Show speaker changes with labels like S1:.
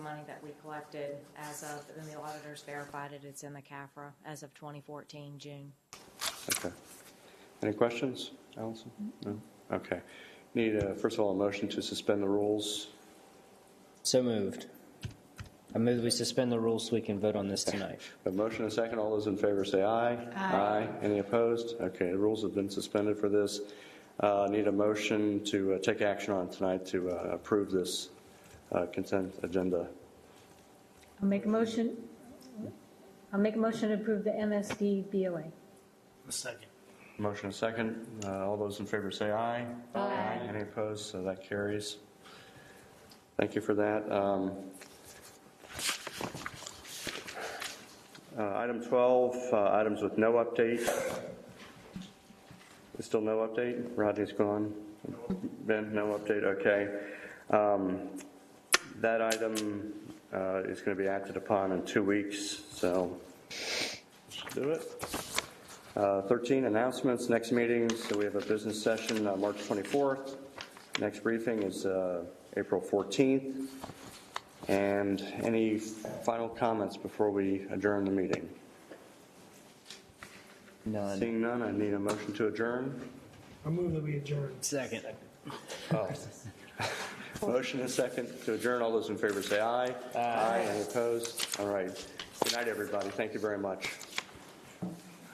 S1: money that we collected as of, and the auditors verified it, it's in the CAFRA as of 2014, June.
S2: Okay. Any questions, Allison? No? Okay. Need, a- first of all, a motion to suspend the rules.
S3: So moved. I move we suspend the rules so we can vote on this tonight.
S2: A motion and a second. All those in favor say aye. Aye. Any opposed? Okay, the rules have been suspended for this. Uh, Need a motion to uh, take action on tonight to uh, approve this uh, consent agenda.
S4: I'll make a motion, I'll make a motion to approve the MSD BOA.
S5: A second.
S2: Motion and a second. Uh, All those in favor say aye. Aye. Any opposed? So that carries. Thank you for that. Um, uh, Item 12, uh, items with no update. There's still no update? Rodney's gone. Ben, no update, okay. Um, That item uh, is going to be acted upon in two weeks, so let's do it. Uh, 13, announcements, next meetings, so we have a business session, uh, March 24th. Next briefing is uh, April 14th. And any final comments before we adjourn the meeting?
S3: None.
S2: Seeing none, I need a motion to adjourn.
S5: I move that we adjourn.
S3: Second.
S2: Motion and second to adjourn, all those in favor say aye. Aye. Any opposed? All right. Good night, everybody, thank you very much.